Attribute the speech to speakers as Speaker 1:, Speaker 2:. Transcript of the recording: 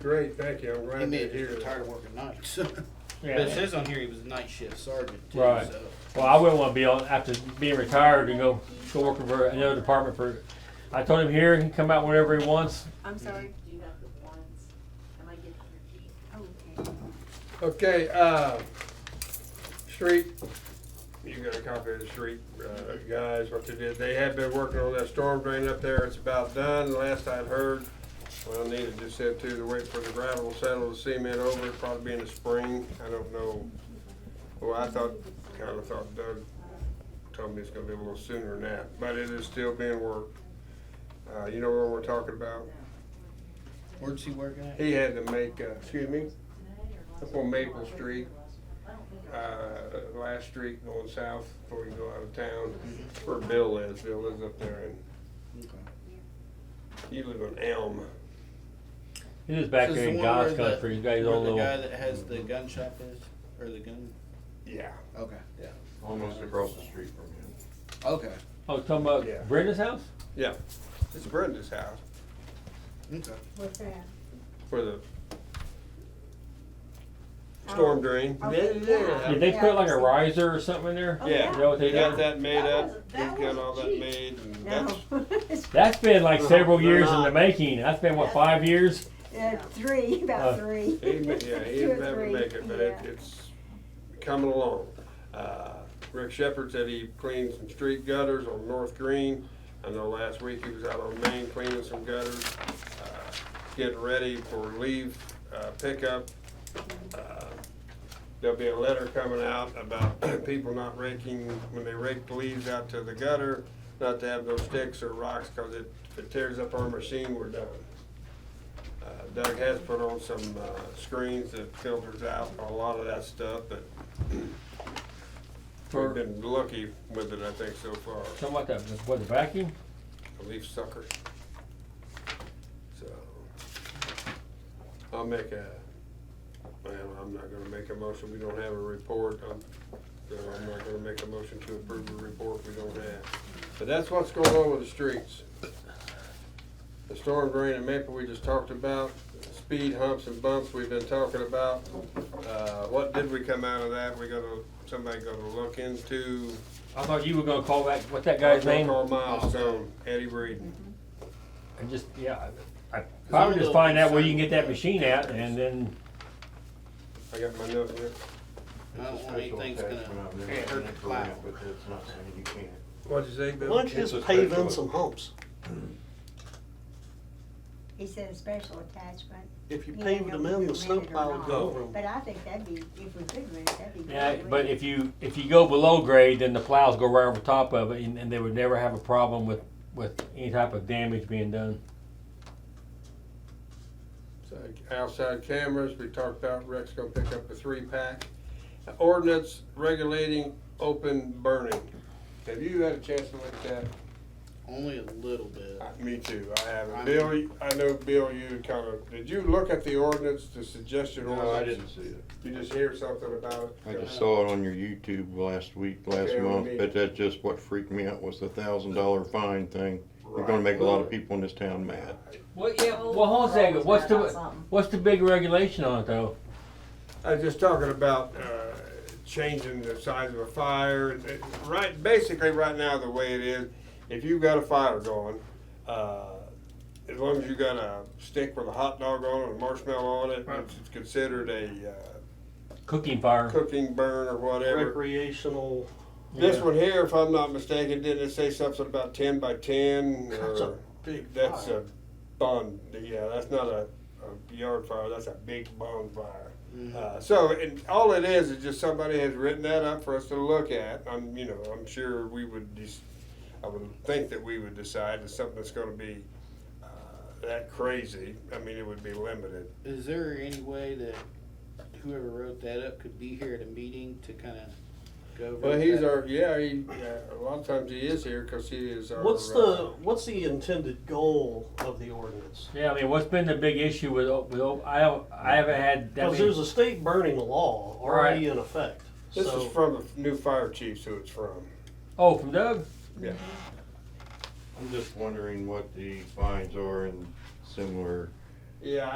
Speaker 1: Great, thank you, I'm
Speaker 2: He
Speaker 1: glad
Speaker 2: may
Speaker 1: to
Speaker 2: have
Speaker 1: hear
Speaker 2: just
Speaker 1: that.
Speaker 2: retired working nights. But it
Speaker 3: Yeah.
Speaker 2: says on here he was a night shift sergeant too,
Speaker 3: Right.
Speaker 2: so.
Speaker 3: Well, I wouldn't want to be on after being retired and go go working for another department for. I told him here he can come out whenever he wants.
Speaker 4: I'm sorry.
Speaker 5: Do you have the ones? Am I getting your key?
Speaker 4: Oh, okay.
Speaker 1: Okay, uh, street, you got a copy of the street, uh, guys, what they did, they have been working on that storm drain up there, it's about done, last I'd heard. Well, Nita just said too, they're waiting for the gravel to settle, the cement over, it'll probably be in the spring, I don't know. Well, I thought, kinda thought Doug told me it's gonna be a little sooner than that, but it is still being worked. Uh, you know what we're talking about?
Speaker 2: Where's he working at?
Speaker 1: He had to make, uh, excuse me, up on Maple Street, uh, last street going south before you go out of town, where Bill is, Bill lives up there, and
Speaker 2: Okay.
Speaker 1: you live on Elm.
Speaker 3: He's just back
Speaker 2: This is
Speaker 3: there
Speaker 2: the one
Speaker 3: in
Speaker 2: where
Speaker 3: God's
Speaker 2: the-
Speaker 3: country. He's got his
Speaker 2: where
Speaker 3: own
Speaker 2: the guy
Speaker 3: little.
Speaker 2: that has the gun shop is, or the gun,
Speaker 1: Yeah.
Speaker 2: okay, yeah,
Speaker 6: Almost across the street from him.
Speaker 2: okay,
Speaker 3: Oh, talking about
Speaker 1: Yeah.
Speaker 3: Brenda's house.
Speaker 1: Yeah, it's Brenda's house,
Speaker 2: okay.
Speaker 4: What's that?
Speaker 1: for the storm drain.
Speaker 4: Oh,
Speaker 1: Yeah,
Speaker 4: yeah.
Speaker 3: Did
Speaker 1: yeah.
Speaker 3: they
Speaker 4: Yeah,
Speaker 3: put like
Speaker 4: I've
Speaker 3: a
Speaker 4: seen-
Speaker 3: riser or something in there?
Speaker 4: Oh,
Speaker 1: Yeah,
Speaker 3: Is that what they
Speaker 1: he got
Speaker 3: did?
Speaker 1: that made
Speaker 4: That
Speaker 1: up,
Speaker 4: wasn't-
Speaker 1: he's
Speaker 4: that
Speaker 1: got all that
Speaker 4: wasn't
Speaker 1: made, and that's,
Speaker 4: No. It's, uh,
Speaker 3: That's been like
Speaker 2: Uh-huh.
Speaker 1: No,
Speaker 3: several
Speaker 1: they're
Speaker 3: years in
Speaker 1: not.
Speaker 3: the making. That's been what five years.
Speaker 4: uh, three,
Speaker 3: Uh,
Speaker 4: about three.
Speaker 1: He, ma- yeah, he
Speaker 4: Two or
Speaker 1: didn't ever
Speaker 4: three,
Speaker 1: make it, but it,
Speaker 4: yeah.
Speaker 1: it's coming along. Uh, Rick Shepherd said he cleaned some street gutters on North Green. I know last week he was out on Main cleaning some gutters, uh, getting ready for leave, uh, pickup. Uh, There'll be a letter coming out about people not raking, when they rake the leaves out to the gutter, not to have those sticks or rocks, cause it, if it tears up our machine, we're done. Uh, Doug has put on some uh, screens that filters out a lot of that stuff, but we've
Speaker 3: For
Speaker 1: been lucky with it, I think, so far.
Speaker 3: something like that. Was it vacuum?
Speaker 1: A leaf sucker. So, I'll make a, well, I'm not gonna make a motion, we don't have a report. I'm, so I'm not gonna make a motion to approve a report we don't have. But that's what's going on with the streets. The storm drain and Maple we just talked about, speed humps and bumps we've been talking about. Uh, what did we come out of that? We gonna, somebody gonna look into
Speaker 3: I thought you were gonna call back. What's that guy's name?
Speaker 1: Call Milestone, Eddie Breeden.
Speaker 3: And just yeah, I, I
Speaker 2: I'm a
Speaker 3: probably just
Speaker 2: little
Speaker 3: find out where you can get
Speaker 2: concerned
Speaker 3: that
Speaker 2: with
Speaker 3: machine
Speaker 2: the
Speaker 3: at,
Speaker 2: gutters.
Speaker 3: and then
Speaker 1: I got my note here.
Speaker 2: I don't want
Speaker 6: Special
Speaker 2: anything's
Speaker 6: attachment
Speaker 2: gonna
Speaker 6: I've never
Speaker 2: hurt the
Speaker 6: seen for
Speaker 2: plow.
Speaker 6: it, But that's not saying you can't.
Speaker 1: What'd you say,
Speaker 7: Why don't you
Speaker 6: It's a
Speaker 7: just pave
Speaker 6: special-
Speaker 7: in some humps?
Speaker 4: He said a special attachment,
Speaker 7: If you
Speaker 4: Yeah,
Speaker 7: paved them in,
Speaker 4: we
Speaker 7: the snow
Speaker 4: made it or
Speaker 7: plow would
Speaker 4: not.
Speaker 7: go over them.
Speaker 4: but I think that'd be, if we could rent, that'd be.
Speaker 3: Yeah,
Speaker 4: great.
Speaker 3: but if you, if you go below grade, then the plows go right over top of it, and, and they would never have a problem with, with any type of damage being done.
Speaker 1: Outside cameras, we talked about Rex gonna pick up a three-pack. Ordinance regulating open burning. Have you had a chance to look at that?
Speaker 2: Only a little bit.
Speaker 1: Uh, Me too, I haven't.
Speaker 2: I'm-
Speaker 1: Bill, you- I know Bill, you kind of, did you look at the ordinance, the suggested ordinance?
Speaker 6: No, I didn't see it.
Speaker 1: You just hear something about it?
Speaker 6: I just saw it on your YouTube last week, last
Speaker 1: Okay,
Speaker 6: month,
Speaker 1: we-
Speaker 6: but that's just what freaked me out was the thousand dollar fine thing. You're gonna make a lot of people in this town mad.
Speaker 3: Well, yeah, well, hold on a second, what's the, what's the big regulation on it though?
Speaker 1: I was just talking about uh, changing the size of a fire. It- Right, basically, right now the way it is, if you've got a fire going, uh, as long as you got a stick with a hot dog on it, and marshmallow on it, it's considered a uh,
Speaker 3: Cooking fire,
Speaker 1: cooking burn or whatever.
Speaker 7: Recreational,
Speaker 1: This
Speaker 3: Yeah.
Speaker 1: one here, if I'm not mistaken, didn't it say something about ten by ten?
Speaker 7: that's a
Speaker 1: or-
Speaker 7: big
Speaker 1: That's
Speaker 7: fire.
Speaker 1: a bond, yeah, that's not a, a yard fire, that's a big bonfire. Uh, so, and all it is, is just somebody has written that up for us to look at, I'm, you know, I'm sure we would just, I would think that we would decide that something that's gonna be, uh, that crazy, I mean, it would be limited.
Speaker 2: Is there any way that whoever wrote that up could be here at a meeting to kinda go over?
Speaker 1: Well, he's
Speaker 2: that?
Speaker 1: our, yeah, he, yeah, a lot of times he is here, cause he is our.
Speaker 7: What's
Speaker 1: uh,
Speaker 7: the, what's the intended goal of the ordinance?
Speaker 3: yeah, I mean, what's been the big issue with, o- with, o- I don't, I haven't had, I
Speaker 7: Because there's
Speaker 3: mean,
Speaker 7: a state burning law already in effect.
Speaker 1: This
Speaker 7: so-
Speaker 1: is from the new fire chiefs who it's from.
Speaker 3: oh, from Doug?
Speaker 6: I'm just wondering what the fines are in similar
Speaker 1: Yeah,